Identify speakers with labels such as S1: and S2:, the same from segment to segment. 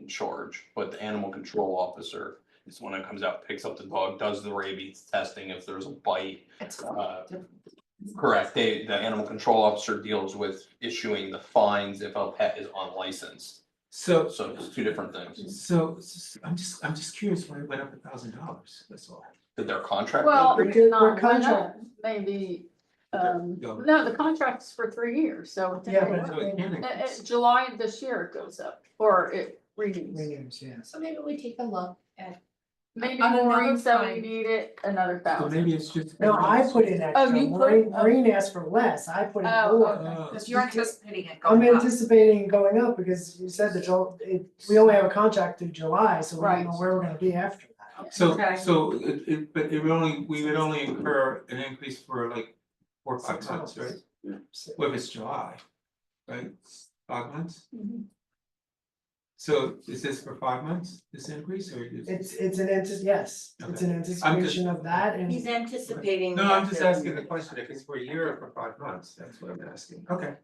S1: in charge, but the animal control officer is the one that comes out, picks up the dog, does the rabies testing if there's a bite.
S2: It's
S1: uh,
S2: different.
S1: Correct, they, the animal control officer deals with issuing the fines if a pet is unlicensed,
S3: So,
S1: so it's two different things.
S3: so, s- I'm just, I'm just curious why it went up a thousand dollars, that's all.
S1: Did their contract?
S4: Well,
S2: We're
S4: it's
S2: good-
S4: not
S2: we're
S4: why not?
S2: contract.
S4: Maybe, um,
S3: Go.
S4: no, the contract's for three years, so.
S2: Yeah, but
S4: Uh,
S3: So it can
S4: uh,
S3: increase.
S4: July of this year it goes up, or it renews.
S2: Williams, yeah.
S5: So maybe we take a look at,
S4: Maybe
S5: On another
S4: Maureen said we
S5: time.
S4: need it another
S3: So
S4: thousand.
S3: maybe it's just.
S2: No, I put in extra,
S4: you put-
S2: Maureen,
S4: oh.
S2: Maureen asked for less, I put in
S4: Oh,
S2: more.
S3: Oh.
S5: because you're anticipating it
S2: I'm
S5: going up.
S2: anticipating it going up because you said that Jul- it, we only have a contract through July, so we don't know
S4: Right.
S2: where we're gonna be after that.
S3: So,
S5: Okay.
S3: so it, it, but it would only, we would only incur an increase for like four, or five
S2: Six
S3: months, right?
S2: months. So-
S3: Well, if it's July, right, five months?
S4: Mhm.
S3: So is this for five months, this increase, or is?
S2: It's, it's an antici- yes, it's an anticipation of that and.
S6: He's anticipating.
S3: No, I'm just
S6: that
S3: asking the
S6: they're-
S3: question, if it's for a year or for five months, that's what I'm asking, okay.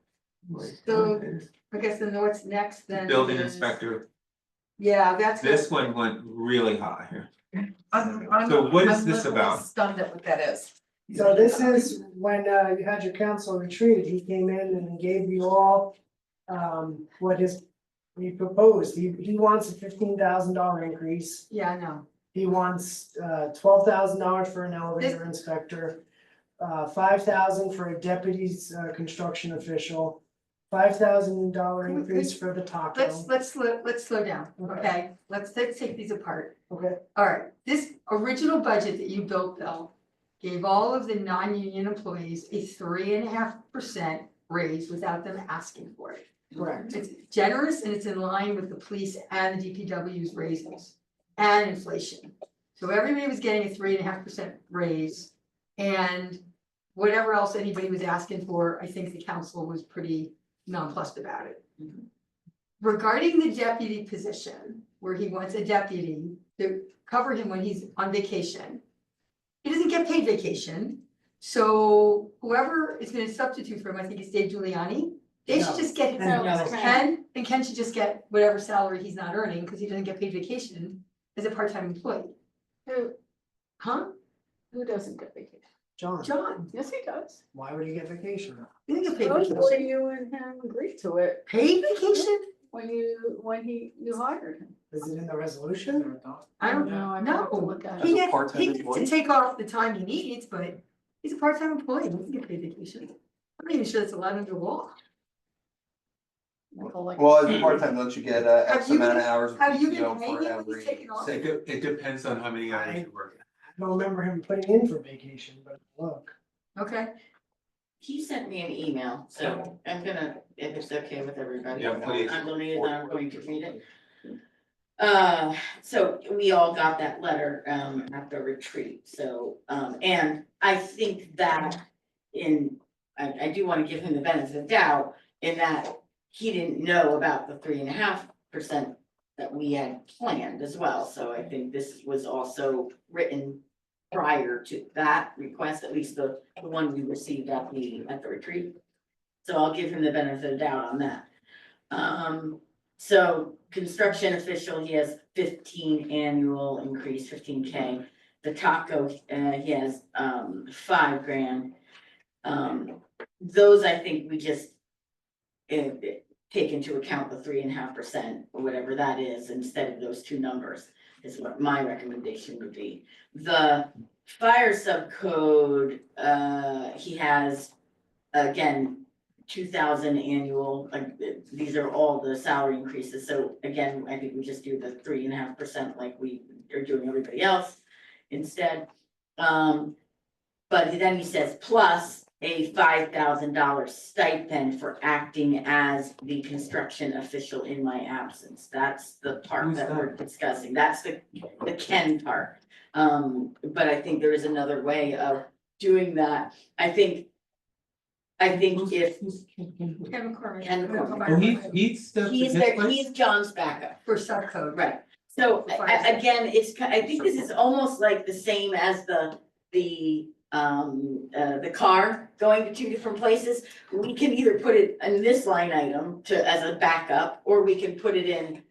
S3: Right.
S5: So- I guess then what's next then
S3: Building
S5: is-
S3: inspector,
S5: Yeah, that's.
S3: this one went really high here.
S5: I'm- I'm-
S3: So what is
S5: I'm
S3: this
S5: literally
S3: about?
S5: Stunned at what that is.
S2: So this is when uh you had your council retreat, he came in and gave you all um what his. He proposed, he he wants a fifteen thousand dollar increase,
S5: Yeah, I know.
S2: he wants uh twelve thousand dollars for an elevator inspector. Uh five thousand for a deputy's uh construction official, five thousand dollar
S5: Can we-
S2: increase for the taco.
S5: Let's, let's, slow- let's slow down,
S2: Okay.
S5: okay? Let's, let's take these apart.
S2: Okay,
S5: All right, this original budget that you built, Bill, gave all of the non-union employees a three and a half percent raise without them asking for it.
S2: correct,
S5: It's generous and it's in line with the police and the DPW's raises and inflation. So everybody was getting a three and a half percent raise. And whatever else anybody was asking for, I think the council was pretty nonplussed about it. Regarding the deputy position, where he wants a deputy to cover him when he's on vacation. He doesn't get paid vacation, so whoever is gonna substitute for him, I think it's Dave Giuliani, they should
S2: No.
S5: just get
S2: And
S4: No, it's
S2: no.
S4: Ken.
S5: Ken, and Ken should just get whatever salary he's not earning, because he doesn't get paid vacation as a part-time employee,
S4: Who,
S5: huh?
S4: who doesn't get vacation?
S2: John,
S5: John,
S4: Yes, he does.
S2: why would he get vacation?
S5: he doesn't get paid
S4: Supposedly
S5: vacation.
S4: you and him agreed to it
S5: Paid vacation?
S4: when you, when he, you hired him.
S2: Is it in the resolution?
S5: I don't know,
S4: I have to
S5: no,
S4: look at it.
S1: As
S5: he
S1: a
S5: gets,
S1: part-time
S5: he gets
S1: employee?
S5: to take off the time he needs, but he's a part-time employee, he doesn't get paid vacation. I'm not even sure that's allowed under law.
S4: Like, like-
S7: Well, as a part-time, don't you get uh
S5: Have
S7: X
S5: you
S7: amount
S5: been-
S7: of hours of
S5: have you been
S7: PTO
S5: paying
S7: for
S5: him when
S7: every?
S5: he's taken off?
S3: It de- it depends on how many hours you work.
S2: I don't remember him putting in for vacation, but look.
S5: Okay,
S6: He sent me an email, so I'm gonna, if it's okay with everybody,
S3: Yeah,
S6: I'm
S3: please.
S6: gonna read it, I'm going to read it. Uh, so we all got that letter, um, at the retreat, so, um, and I think that in, I, I do wanna give him the benefit of the doubt in that he didn't know about the three and a half percent that we had planned as well, so I think this was also written prior to that request, at least the the one we received at the, at the retreat. So I'll give him the benefit of doubt on that. Um, so construction official, he has fifteen annual increase, fifteen K. The taco, uh, he has, um, five grand. Um, those I think we just eh, eh, take into account the three and a half percent, or whatever that is, instead of those two numbers is what my recommendation would be. The fire subcode, uh, he has, again, two thousand annual, like, th- these are all the salary increases, so again, I think we just do the three and a half percent like we are doing everybody else instead. Um, but then he says plus a five thousand dollar stipend for acting as the construction official in my absence. That's the part
S3: Who's
S6: that we're discussing, that's the, the Ken part. Um, but I think there is another way of doing that. I think. I think if
S5: Kevin McCormick.
S6: Ken McCormick.
S3: Oh, he he's the.
S6: he's
S3: his
S6: there,
S3: place?
S6: he's John's backup,
S5: For subcode,
S6: right? So a- a- again, it's, ki- I think this is almost like the same as the, the, um, uh, the car going to two different places. We can either put it in this line item to, as a backup, or we can put it in